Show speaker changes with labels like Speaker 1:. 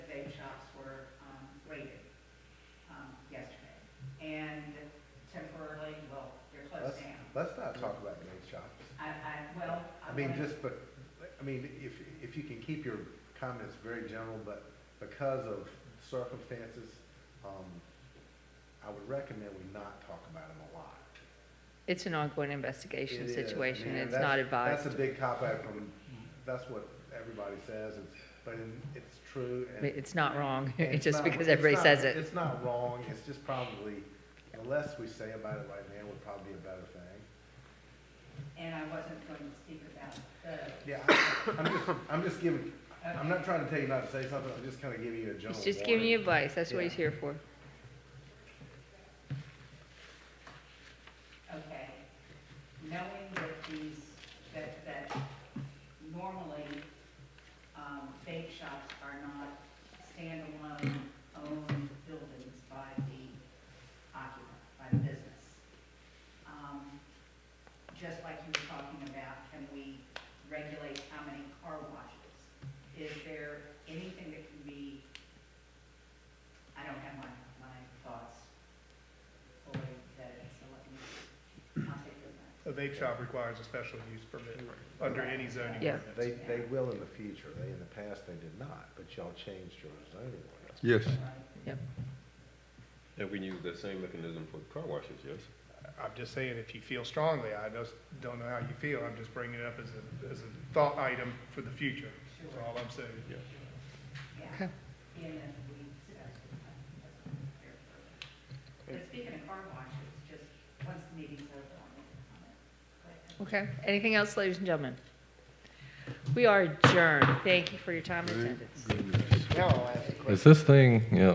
Speaker 1: um,
Speaker 2: I mean, just, but, I mean, if, if you can keep your comments very general, but because of circumstances, um, I would recommend we not talk about them a lot.
Speaker 3: It's an ongoing investigation
Speaker 2: It is. I
Speaker 3: situation,
Speaker 2: mean,
Speaker 3: it's
Speaker 2: that's-
Speaker 3: not advised.
Speaker 2: That's a big cop out from, that's what everybody says, and- but in- it's true.
Speaker 3: I
Speaker 2: and-
Speaker 3: mean, It's not wrong,
Speaker 2: and it's
Speaker 3: just
Speaker 2: not-
Speaker 3: because
Speaker 2: it's
Speaker 3: everybody
Speaker 2: not-
Speaker 3: says it.
Speaker 2: It's not wrong, it's just probably, the less we say about it right now would probably be a better thing.
Speaker 1: And I wasn't going to speak about the,
Speaker 2: Yeah, I- I'm just, I'm just giving, I'm not trying to tell you not to say something, I'm just kind of giving you a general
Speaker 3: He's just giving you
Speaker 2: warning.
Speaker 3: advice, that's what
Speaker 2: Yeah.
Speaker 3: he's here for.
Speaker 1: okay, knowing that these, that, that normally, um, bake shops are not standalone owned buildings by the occupant, by the business. Um, Just like you were talking about, can we regulate how many car washes? Is there anything that can be, I don't have my, my thoughts fully vetted, so let me, I'll take your advice.
Speaker 4: A vape shop requires a special use permit under any zoning
Speaker 3: Yeah.
Speaker 4: ordinance.
Speaker 2: They, they will in the future, they, in the past, they did not, but y'all changed your zoning ordinance.
Speaker 5: Yes.
Speaker 1: Right.
Speaker 6: And we can use that same mechanism for car washes, yes?
Speaker 4: I'm just saying, if you feel strongly, I just don't know how you feel, I'm just bringing it up as a, as a thought item for the future, that's all I'm saying.
Speaker 1: Yeah,
Speaker 3: Okay.
Speaker 1: being that we discussed it, uh, that's what I'm here for. But speaking of car washes, just once the meeting's over, I'll make a comment. But-
Speaker 3: Okay, anything else, ladies and gentlemen? We are adjourned, thank you for your time and attendance.
Speaker 5: Is this thing, yeah,